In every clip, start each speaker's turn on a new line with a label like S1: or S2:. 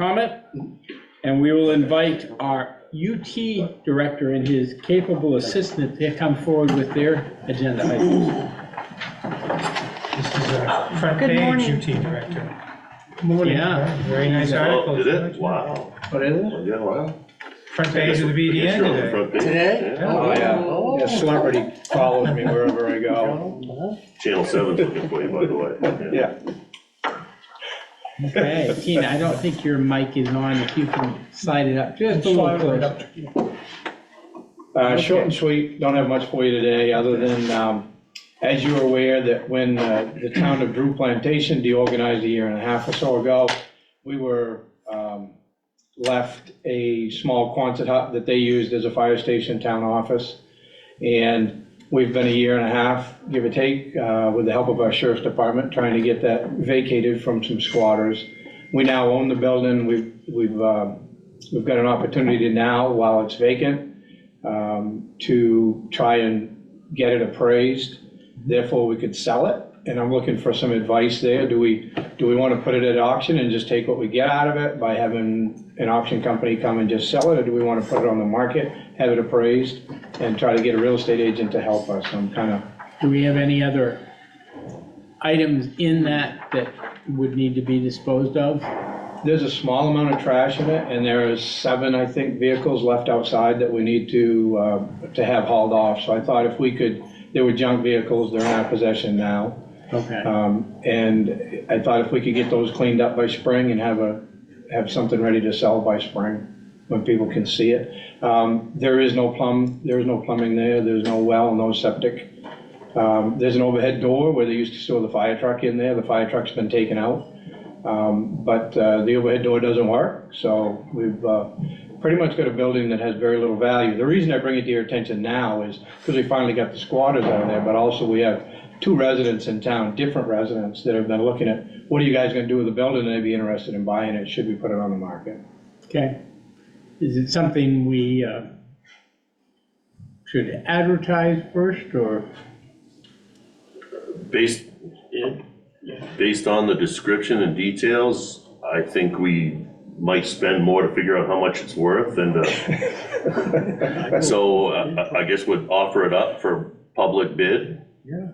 S1: comment, and we will invite our UT director and his capable assistant to come forward with their agenda items.
S2: This is a front
S3: Good
S2: page
S3: morning.
S2: UT director.
S1: Yeah.
S2: Very nice article.
S4: Oh, did it? Wow.
S2: Oh,
S1: What is it?
S4: Yeah, wow.
S2: Front page of the BDN today.
S4: Today?
S5: Oh, yeah. Yeah, celebrity follows me wherever I go.
S4: Channel seven's looking for you, by the way.
S5: Yeah.
S1: Okay, Tina, I don't think your mic is on, if you can slide it up just a little closer.
S5: Uh, Short and sweet, don't have much for you today, other than, um, as you're aware, that when uh, the town of Drew Plantation deorganized a year and a half or so ago, we were um, left a small Quonset hut that they used as a fire station town office. And we've been a year and a half, give or take, uh, with the help of our sheriff's department, trying to get that vacated from some squatters. We now own the building. We've, we've, uh, we've got an opportunity now, while it's vacant, um, to try and get it appraised. Therefore, we could sell it. And I'm looking for some advice there. Do we, do we want to put it at auction and just take what we get out of it by having an auction company come and just sell it? Or do we want to put it on the market, have it appraised, and try to get a real estate agent to help us? I'm kind of
S1: Do we have any other items in that that would need to be disposed of?
S5: There's a small amount of trash in it, and there is seven, I think, vehicles left outside that we need to, uh, to have hauled off. So I thought if we could, they were junk vehicles, they're in our possession now.
S1: Okay,
S5: Um, And I thought if we could get those cleaned up by spring and have a, have something ready to sell by spring, when people can see it. Um, There is no plumb, there is no plumbing there, there's no well, no septic. Um, There's an overhead door where they used to store the fire truck in there, the fire truck's been taken out. Um, But uh, the overhead door doesn't work, so we've uh, pretty much got a building that has very little value. The reason I bring it to your attention now is because we finally got the squatters out of there, but also we have two residents in town, different residents, that have been looking at, what are you guys gonna do with the building? And they'd be interested in buying it, should we put it on the market?
S1: okay. Is it something we uh, should advertise first, or?
S4: Based, based on the description and details, I think we might spend more to figure out how much it's worth and, uh, so uh, I I guess would offer it up for public bid. Yeah.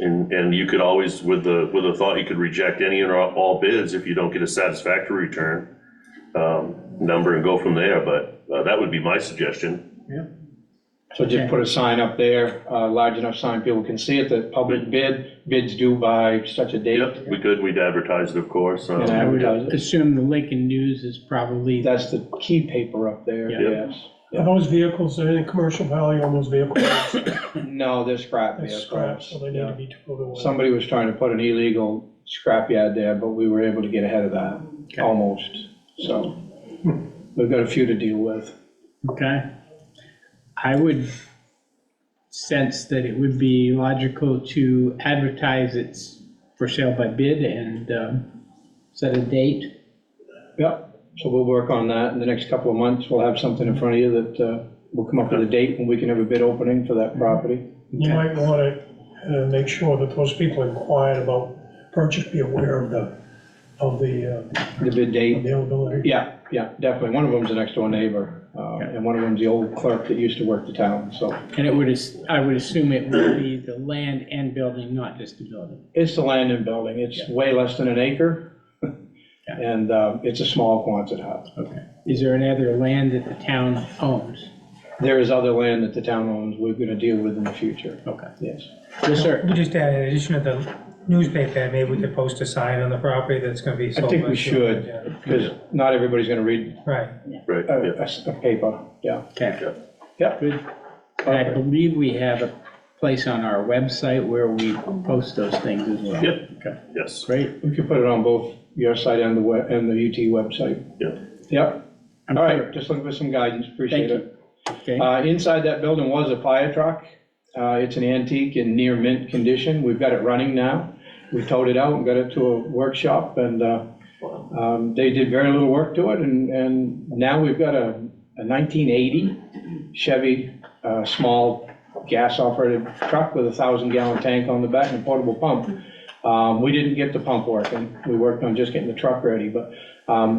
S4: And, and you could always, with the, with the thought, you could reject any or all bids if you don't get a satisfactory return, um, number and go from there, but uh, that would be my suggestion.
S5: So just put a sign up there, uh, large enough sign people can see it, that public bid, bids due by such a date.
S4: Yep, we could, we'd advertise it, of course. um,
S5: And
S1: I would
S5: advertise it.
S1: assume the Lincoln News is probably
S5: That's the key paper up there,
S1: Yeah.
S5: yes.
S6: Are those vehicles, any commercial value on those vehicles?
S5: No, they're scrap
S6: They're
S5: vehicles.
S6: scrap, so they need to be towed away.
S5: Somebody was trying to put an illegal scrapyard there, but we were able to get ahead of that, almost. So we've got a few to deal with.
S1: Okay. I would sense that it would be logical to advertise it's for sale by bid and um, set a date.
S5: Yep, so we'll work on that in the next couple of months. We'll have something in front of you that uh, we'll come up with a date when we can have a bid opening for that property.
S6: You might want to make sure that those people inquired about purchase, be aware of the, of the uh,
S5: The bid date,
S6: availability.
S5: yeah, yeah, definitely. One of them's the next door neighbor, uh, and one of them's the old clerk that used to work the town, so.
S1: And it would, as- I would assume it would be the land and building, not just the building.
S5: It's the land and building. It's way less than an acre.
S1: Yeah.
S5: And uh, it's a small Quonset hut.
S1: Okay. Is there any other land that the town owns?
S5: There is other land that the town owns we're gonna deal with in the future,
S1: Okay.
S5: yes.
S1: Yes, sir.
S2: We just add in addition to the newspaper, maybe we could post a sign on the property that's gonna be
S5: I
S2: sold.
S5: think
S2: by-
S5: we should, because not everybody's gonna read
S2: Right,
S4: Right,
S1: Oh,
S5: a,
S4: yeah.
S5: a s- a paper, yeah.
S1: Okay.
S5: Yep.
S1: Good. And I believe we have a place on our website where we post those things as well.
S4: Yep.
S1: Okay,
S4: yes,
S1: great.
S5: We could put it on both your site and the web, and the UT website.
S4: yeah.
S5: Yep,
S1: I'm
S5: all
S1: clear.
S5: right, just looking for some guidance, appreciate
S1: Thank
S5: it.
S1: Okay.
S5: Uh, inside that building was a fire truck. Uh, it's an antique in near mint condition. We've got it running now. We towed it out and got it to a workshop and, uh, um, they did very little work to it and, and now we've got a, a nineteen eighty Chevy, uh, small gas operated truck with a thousand gallon tank on the back and a portable pump. Um, we didn't get the pump working. We worked on just getting the truck ready, but, um,